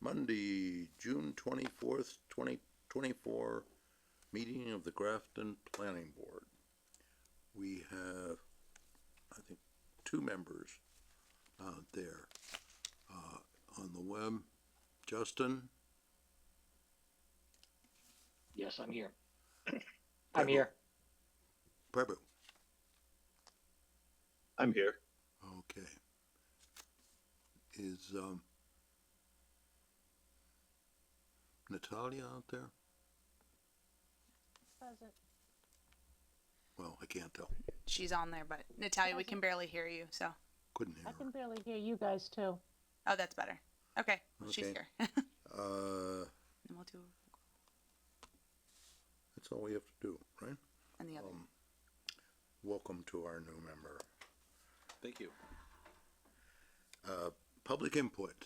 Monday, June twenty-fourth, twenty twenty-four, meeting of the Grafton Planning Board. We have, I think, two members out there. Uh, on the web, Justin, Yes, I'm here. I'm here. Prebu, I'm here. okay. Is, um, Natalia out there? Present. Well, I can't tell, She's on there, but Natalia, we can barely hear you. So, couldn't hear I her. can barely hear you guys too. oh, that's better. Okay, well, she's Okay. here. and Uh, we'll do, that's all we have to do, right? and the other. Um, welcome to our new member. Thank you. Uh, public input.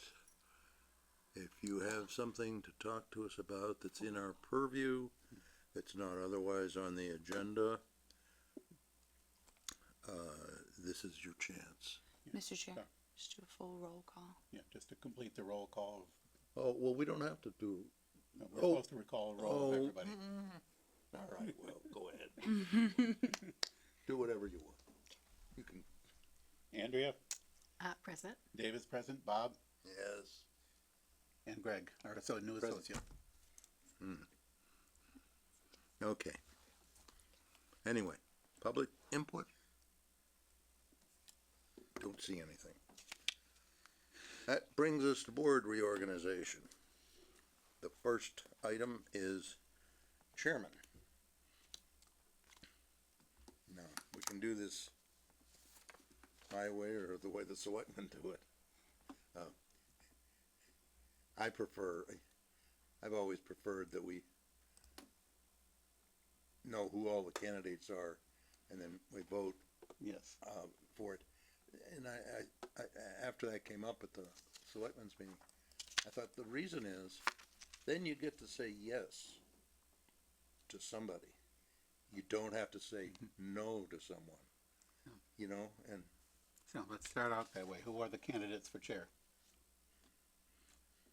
If you have something to talk to us about that's in our purview, that's not otherwise on the agenda, uh, this is your chance. Mr. Chair, Sorry. just do a full roll call. Yeah, just to complete the roll call, Oh, well, we don't have to do, of- no, we're Oh. supposed to recall a roll of Oh. everybody. Mm-hmm. all right, well, go ahead. Do whatever you want. You can, Andrea, Uh, present. David's present, Bob, yes. and Greg, our so- new Present. associate. Okay. Anyway, public input? Don't see anything. That brings us to board reorganization. The first item is chairman. Now, we can do this my way or the way the selectmen do it. Uh, I prefer, I've always preferred that we know who all the candidates are, and then we vote Yes. uh, for it. And I, I, I, after that came up at the selectmen's meeting, I thought the reason is, then you get to say yes to somebody. You don't have to say no to someone, you know, and So let's start out that way. Who are the candidates for chair?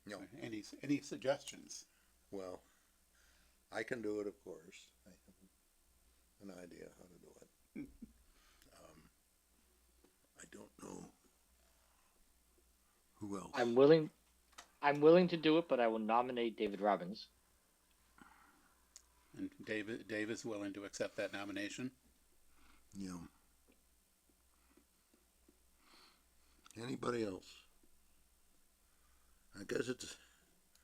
No. Any, any suggestions? Well, I can do it, of course. I have an idea how to do it. um, I don't know who else. I'm willing. I'm willing to do it, but I will nominate David Robbins. And David, Dave is willing to accept that nomination. Yeah. Anybody else? I guess it's.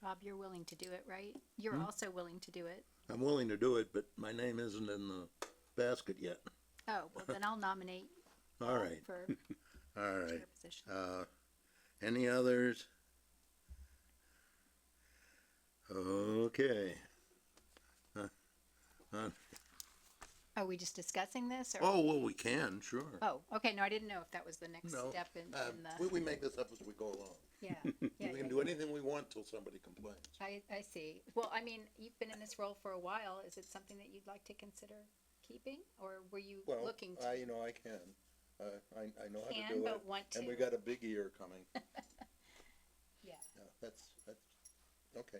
Bob, you're willing to do it, right? You're Hmm? also willing to do it. I'm willing to do it, but my name isn't in the basket yet. Oh, well, then I'll nominate All right. for All right. chair position. Uh, any others? Okay. Uh, uh, Are we just discussing this or? Oh, well, we can, sure. Oh, okay, no, I didn't know if that was the next No, step in, Uh, in we, the, we make this up as we go along. yeah, yeah, yeah. We can do anything we want till somebody complains. I, I see. Well, I mean, you've been in this role for a while. Is it something that you'd like to consider keeping? Or were you Well, looking I, to? you know, I can. Uh, I, I know how to Can, do but it. want to? And we got a big ear coming. Yeah. Yeah, That's, that's, okay.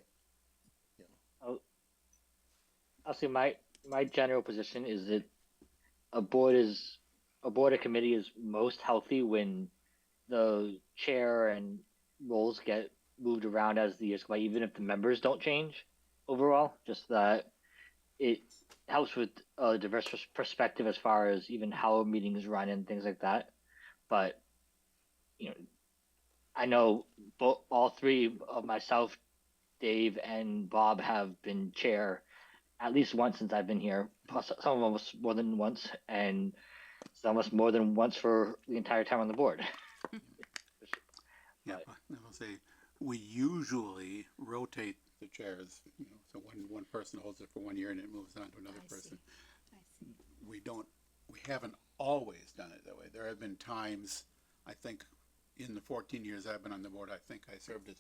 I'll see. My my general position is that a board is a board or committee is most healthy when the chair and roles get moved around as the years go by, even if the members don't change overall. Just that it helps with a diverse pers- perspective as far as even how meetings run and things like that. But you know, I know bo- all three of myself, Dave, and Bob have been chair at least once since I've been here. Plus, some of us more than once, and some of us more than once for the entire time on the board. Yeah, I will say, we usually rotate the chairs, you know, so one, one person holds it for one year and it moves on to another I see. person. I see. we don't, we haven't always done it that way. There have been times, I think, in the fourteen years I've been on the board, I think I served as